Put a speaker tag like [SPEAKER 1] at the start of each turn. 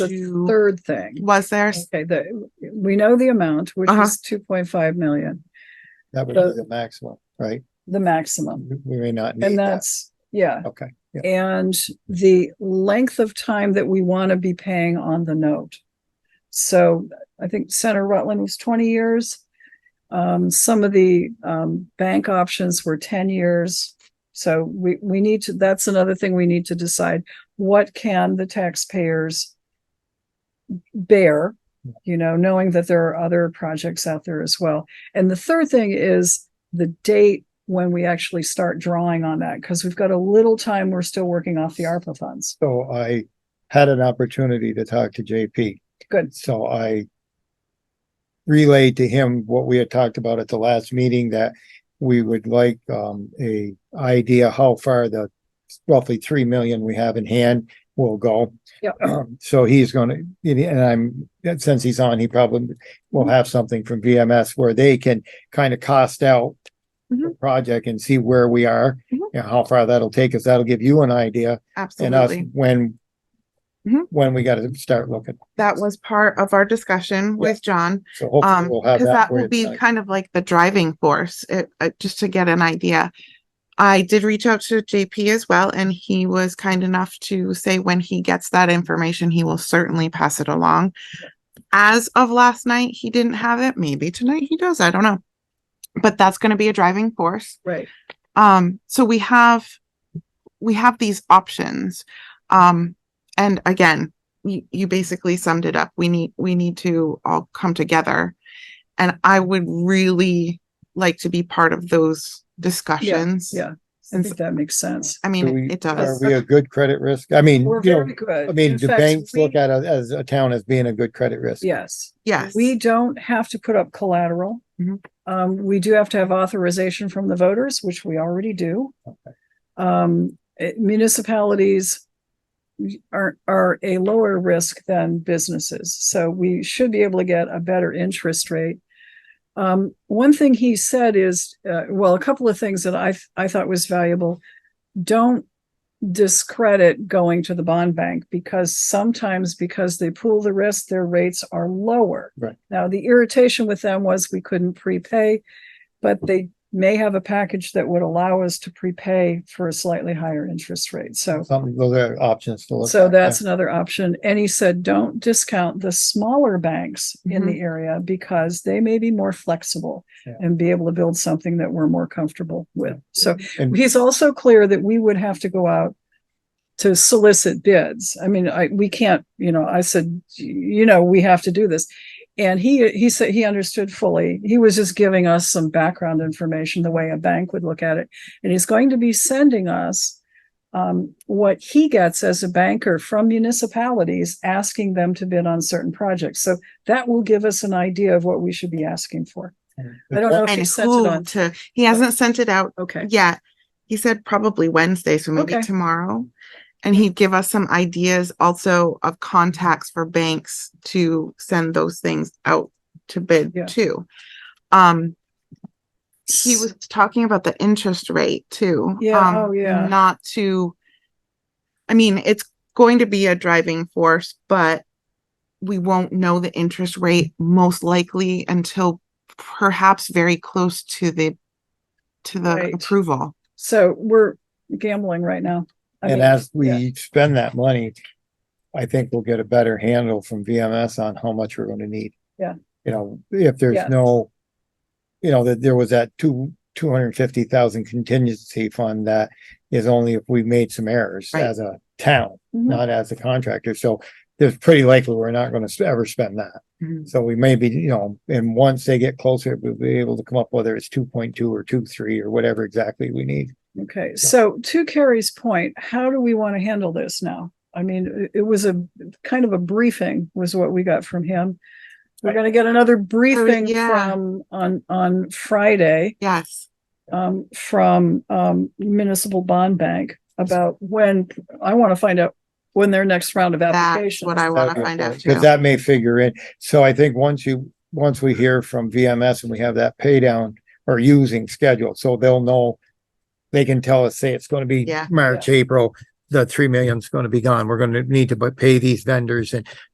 [SPEAKER 1] to,
[SPEAKER 2] third thing.
[SPEAKER 1] was there?
[SPEAKER 2] Okay, the, we know the amount, which
[SPEAKER 1] Uh-huh.
[SPEAKER 2] is two point five million,
[SPEAKER 3] That would be the maximum, right?
[SPEAKER 2] the maximum.
[SPEAKER 3] We may not need
[SPEAKER 2] And
[SPEAKER 3] that.
[SPEAKER 2] that's, yeah,
[SPEAKER 3] Okay,
[SPEAKER 2] and the length of time that we want to be paying on the note. So I think Senator Rutland was twenty years. Um, some of the, um, bank options were ten years. So we, we need to, that's another thing we need to decide. What can the taxpayers bear? You know, knowing that there are other projects out there as well. And the third thing is the date when we actually start drawing on that, because we've got a little time. We're still working off the ARPA funds.
[SPEAKER 3] so I had an opportunity to talk to JP.
[SPEAKER 2] Good.
[SPEAKER 3] So I relayed to him what we had talked about at the last meeting that we would like um a idea how far the roughly three million we have in hand will go.
[SPEAKER 2] Yep.
[SPEAKER 3] So he's gonna, and I'm, since he's on, he probably will have something from VMS where they can kind of cost out the
[SPEAKER 2] Mhm.
[SPEAKER 3] project and see where we are
[SPEAKER 2] Mhm.
[SPEAKER 3] and how far that'll take us. That'll give you an idea and us
[SPEAKER 1] Absolutely.
[SPEAKER 3] when
[SPEAKER 1] Mhm.
[SPEAKER 3] when we gotta start looking.
[SPEAKER 1] That was part of our discussion with John.
[SPEAKER 3] So
[SPEAKER 1] Um,
[SPEAKER 3] hopefully we'll have
[SPEAKER 1] because
[SPEAKER 3] that.
[SPEAKER 1] that
[SPEAKER 3] for you
[SPEAKER 1] will be
[SPEAKER 3] tonight.
[SPEAKER 1] kind of like the driving force, it, uh, just to get an idea. I did reach out to JP as well, and he was kind enough to say when he gets that information, he will certainly pass it along. As of last night, he didn't have it. Maybe tonight he does. I don't know. But that's going to be a driving force.
[SPEAKER 2] Right.
[SPEAKER 1] um so we have we have these options um and again you, you basically summed it up we need we need to all come together and i would really like to be part of those discussions
[SPEAKER 2] yeah. I
[SPEAKER 1] And
[SPEAKER 2] think that makes sense.
[SPEAKER 1] i
[SPEAKER 3] Do
[SPEAKER 1] mean
[SPEAKER 3] we-
[SPEAKER 1] it
[SPEAKER 3] Are
[SPEAKER 1] does
[SPEAKER 3] we a good credit risk? I mean,
[SPEAKER 2] We're
[SPEAKER 3] you know,
[SPEAKER 2] very good.
[SPEAKER 3] I mean,
[SPEAKER 2] In
[SPEAKER 3] do
[SPEAKER 2] fact,
[SPEAKER 3] banks look
[SPEAKER 2] we-
[SPEAKER 3] at us as a town as being a good credit risk?
[SPEAKER 2] Yes,
[SPEAKER 1] yes
[SPEAKER 2] we don't have to put up collateral.
[SPEAKER 1] Mhm.
[SPEAKER 2] Um, we do have to have authorization from the voters, which we already do. Um, eh, municipalities are, are a lower risk than businesses, so we should be able to get a better interest rate. Um, one thing he said is, uh, well, a couple of things that I, I thought was valuable. Don't discredit going to the bond bank because sometimes because they pool the risk, their rates are lower.
[SPEAKER 3] Right.
[SPEAKER 2] Now, the irritation with them was we couldn't prepay, but they may have a package that would allow us to prepay for a slightly higher interest rate. So,
[SPEAKER 3] Something, those are options to look.
[SPEAKER 2] so
[SPEAKER 3] at, yeah.
[SPEAKER 2] that's another option. And he said, don't discount the smaller banks in the area because they may be more flexible
[SPEAKER 3] Mm-hmm. Yeah.
[SPEAKER 2] and be able to build something that we're more comfortable with. So
[SPEAKER 3] And-
[SPEAKER 2] he's also clear that we would have to go out to solicit bids. I mean, I, we can't, you know, I said, you know, we have to do this. And he, he said, he understood fully. He was just giving us some background information, the way a bank would look at it. And he's going to be sending us um, what he gets as a banker from municipalities, asking them to bid on certain projects. So that will give us an idea of what we should be asking for. I don't know if he
[SPEAKER 1] and
[SPEAKER 2] sent it
[SPEAKER 1] who
[SPEAKER 2] on.
[SPEAKER 1] to he hasn't sent it out
[SPEAKER 2] Okay.
[SPEAKER 1] yet he said probably wednesday so maybe
[SPEAKER 2] Okay.
[SPEAKER 1] tomorrow and he'd give us some ideas also of contacts for banks to send those things out to bid
[SPEAKER 2] Yeah.
[SPEAKER 1] too um he was talking about the interest rate too.
[SPEAKER 2] Yeah,
[SPEAKER 1] um,
[SPEAKER 2] oh, yeah.
[SPEAKER 1] Not to, I mean, it's going to be a driving force, but we won't know the interest rate most likely until perhaps very close to the, to the
[SPEAKER 2] Right.
[SPEAKER 1] approval.
[SPEAKER 2] So we're gambling right now. I mean,
[SPEAKER 3] And as
[SPEAKER 2] yeah.
[SPEAKER 3] we spend that money, I think we'll get a better handle from VMS on how much we're gonna need.
[SPEAKER 2] Yeah.
[SPEAKER 3] You know, if
[SPEAKER 2] Yeah.
[SPEAKER 3] there's no, you know, that there was that two, two hundred and fifty thousand contingency fund that is only if we made some errors
[SPEAKER 1] Right.
[SPEAKER 3] as a town,
[SPEAKER 2] Mhm.
[SPEAKER 3] not as a contractor. So there's pretty likely we're not gonna s- ever spend that.
[SPEAKER 2] Mm-hmm.
[SPEAKER 1] Mhm.
[SPEAKER 3] So we may be, you know, and once they get closer, we'll be able to come up whether it's two point two or two, three or whatever exactly we need.
[SPEAKER 2] Okay, so to Carrie's point, how do we want to handle this now? I mean, it- it was a kind of a briefing was what we got from him. We're gonna get another briefing
[SPEAKER 1] yeah.
[SPEAKER 2] from on on Friday
[SPEAKER 1] Yes.
[SPEAKER 2] um from um municipal bond bank about when I want to find out when their next round of
[SPEAKER 1] That's
[SPEAKER 2] applications.
[SPEAKER 1] what I want to find out too.
[SPEAKER 3] Because that may figure in. So I think once you, once we hear from VMS and we have that pay down or using schedule, so they'll know. They can tell us, say it's gonna be
[SPEAKER 1] Yeah.
[SPEAKER 3] March, April, the three million's gonna be gone. We're gonna need to bu- pay these vendors and